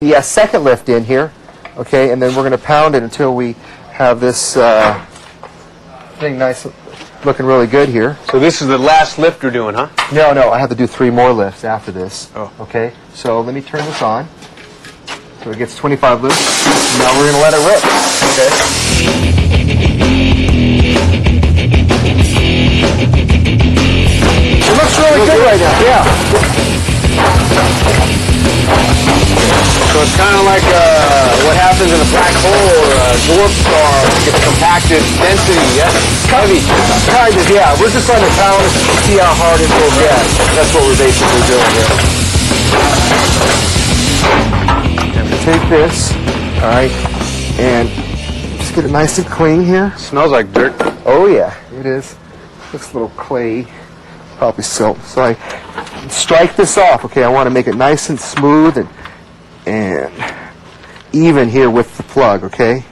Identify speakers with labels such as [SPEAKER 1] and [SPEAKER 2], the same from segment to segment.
[SPEAKER 1] the uh, second lift in here, okay, and then we're going to pound it until we have this uh, thing nice, looking really good here.
[SPEAKER 2] So this is the last lift you're doing, huh?
[SPEAKER 1] No, no, I have to do three more lifts after this.
[SPEAKER 2] Oh.
[SPEAKER 1] Okay, so let me turn this on. So it gets 25 loops. Now we're going to let it rip. Okay. It looks really good right now. Yeah.
[SPEAKER 2] So it's kind of like uh, what happens in a black hole or a dwarf star it gets compacted density. Yes, heavy.
[SPEAKER 1] Kind of, yeah. We're just trying to balance to see how hard it will get. That's what we're basically doing here. I'm gonna take this, all right, and just get it nice and clean here.
[SPEAKER 2] Smells like dirt.
[SPEAKER 1] Oh yeah, it is. Looks a little clay, probably silt. So I strike this off. Okay, I want to make it nice and smooth and and even here with the plug. Okay.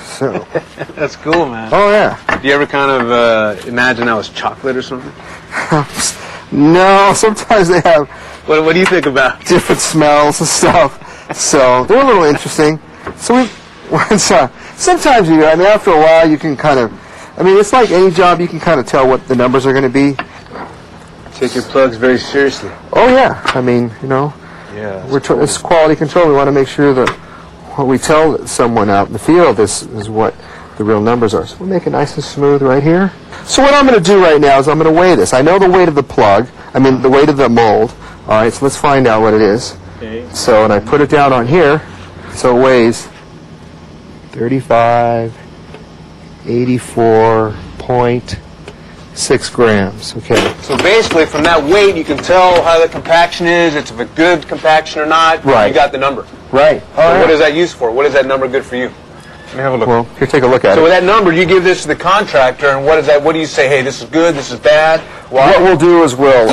[SPEAKER 1] So,
[SPEAKER 2] That's cool, man.
[SPEAKER 1] oh yeah.
[SPEAKER 2] Do you ever kind of uh, imagine that was chocolate or something?
[SPEAKER 1] No, sometimes they have
[SPEAKER 2] What, what do you think about?
[SPEAKER 1] different smells and stuff. So they're a little interesting. So we, once, uh, sometimes you, I mean, after a while, you can kind of, I mean, it's like any job, you can kind of tell what the numbers are going to be.
[SPEAKER 2] Take your plugs very seriously.
[SPEAKER 1] Oh yeah, I mean, you know,
[SPEAKER 2] Yeah.
[SPEAKER 1] we're tr- it's quality control. We want to make sure that what we tell someone out in the field is, is what the real numbers are. So we'll make it nice and smooth right here. So what I'm going to do right now is I'm going to weigh this. I know the weight of the plug. I mean, the weight of the mold. All right, so let's find out what it is.
[SPEAKER 2] Okay.
[SPEAKER 1] So, and I put it down on here, so it weighs 35, 84.6 grams. Okay,
[SPEAKER 2] So basically, from that weight, you can tell how the compaction is. It's if a good compaction or not.
[SPEAKER 1] Right.
[SPEAKER 2] You got the number.
[SPEAKER 1] right.
[SPEAKER 2] So What is that used for? What is that number good for you? Let me have a look.
[SPEAKER 1] Well, here, take a look at
[SPEAKER 2] So
[SPEAKER 1] it.
[SPEAKER 2] with that number, you give this to the contractor, and what is that? What do you say? Hey, this is good. This is bad. Why?
[SPEAKER 1] What we'll do is we'll,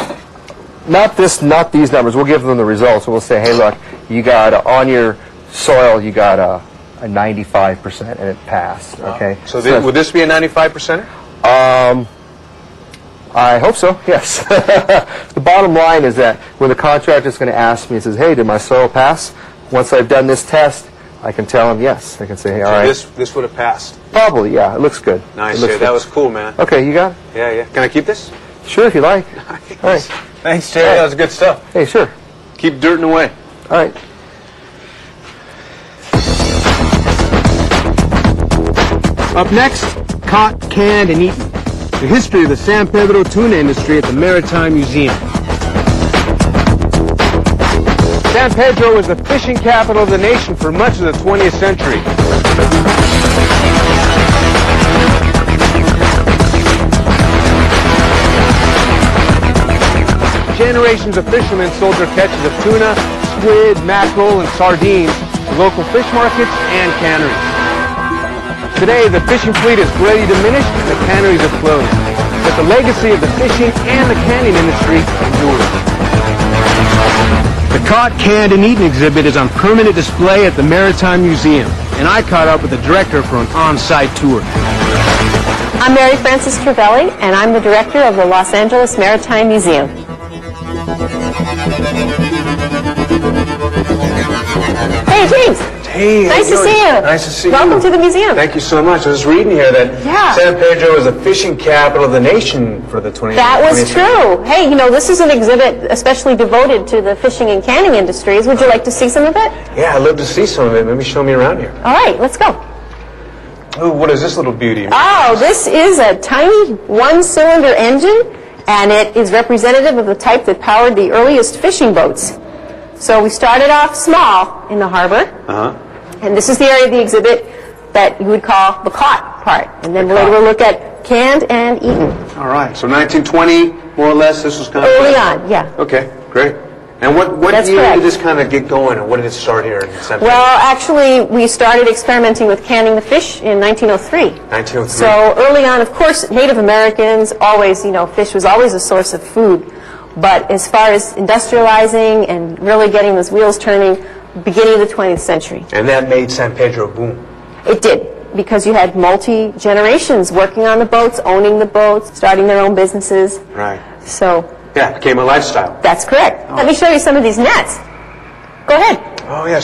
[SPEAKER 1] not this, not these numbers, we'll give them the results. We'll say, hey, look, you got, a- on your soil, you got a, a 95% and it passed, okay?
[SPEAKER 2] So thi- would this be a 95 percent?
[SPEAKER 1] I hope so, yes. the bottom line is that when the contractor's going to ask me, he says, hey, did my soil pass? Once I've done this test, I can tell him yes. I can say, hey, all right,
[SPEAKER 2] This this would have passed.
[SPEAKER 1] probably, yeah, it looks good.
[SPEAKER 2] Nice.
[SPEAKER 1] It looks
[SPEAKER 2] yeah,
[SPEAKER 1] good.
[SPEAKER 2] that was cool, man.
[SPEAKER 1] Okay, you got it?
[SPEAKER 2] Yeah, yeah. Can I keep this?
[SPEAKER 1] Sure, if you like. All right.
[SPEAKER 2] Thanks, Terry. That was good stuff.
[SPEAKER 1] Hey, sure.
[SPEAKER 2] Keep dirting away.
[SPEAKER 1] All right.
[SPEAKER 2] Up next, caught, canned, and eaten. The history of the San Pedro tuna industry at the Maritime Museum. San Pedro was the fishing capital of the nation for much of the 20th century. Generations of fishermen sold their catches of tuna, squid, mackerel, and sardines to local fish markets and canneries. Today, the fishing fleet is greatly diminished and the canneries are closed. But the legacy of the fishing and the canning industry endures. The caught, canned, and eaten exhibit is on permanent display at the Maritime Museum, and I caught up with the director for an on-site tour.
[SPEAKER 3] I'm Mary Frances Travelli, and I'm the director of the Los Angeles Maritime Museum. Hey, James.
[SPEAKER 2] Hey,
[SPEAKER 3] Nice to
[SPEAKER 2] how are
[SPEAKER 3] see you.
[SPEAKER 2] Nice to see you.
[SPEAKER 3] Welcome to the museum.
[SPEAKER 2] Thank you so much. I was reading here that
[SPEAKER 3] Yeah.
[SPEAKER 2] San Pedro was the fishing capital of the nation for the 20th.
[SPEAKER 3] That was
[SPEAKER 2] 20th
[SPEAKER 3] true. Hey, you know, this is an exhibit especially devoted to the fishing and canning industries. Would you like to see some of it?
[SPEAKER 2] Yeah, I'd love to see some of it. Maybe show me around here.
[SPEAKER 3] All right, let's go.
[SPEAKER 2] Ooh, what is this little beauty?
[SPEAKER 3] Oh, this is a tiny one-cylinder engine, and it is representative of the type that powered the earliest fishing boats. So we started off small in the harbor,
[SPEAKER 2] Uh-huh.
[SPEAKER 3] and this is the area of the exhibit that you would call the caught part. And then later we'll look at canned and eaten.
[SPEAKER 2] All right. So 1920, more or less, this was kind of
[SPEAKER 3] Early on, yeah.
[SPEAKER 2] Okay, great. And what, what
[SPEAKER 3] That's
[SPEAKER 2] year
[SPEAKER 3] correct.
[SPEAKER 2] did this kind of get going, and what did it start here in San Pedro?
[SPEAKER 3] Well, actually, we started experimenting with canning the fish in 1903.
[SPEAKER 2] 1903.
[SPEAKER 3] So early on, of course, Native Americans always, you know, fish was always a source of food. But as far as industrializing and really getting those wheels turning, beginning of the 20th century,
[SPEAKER 2] and that made San Pedro boom.
[SPEAKER 3] it did. Because you had multi generations working on the boats, owning the boats, starting their own businesses.
[SPEAKER 2] Right.
[SPEAKER 3] So
[SPEAKER 2] Yeah, it became a lifestyle.
[SPEAKER 3] that's correct. Let me show you some of these nets. Go ahead.
[SPEAKER 2] Oh, yeah,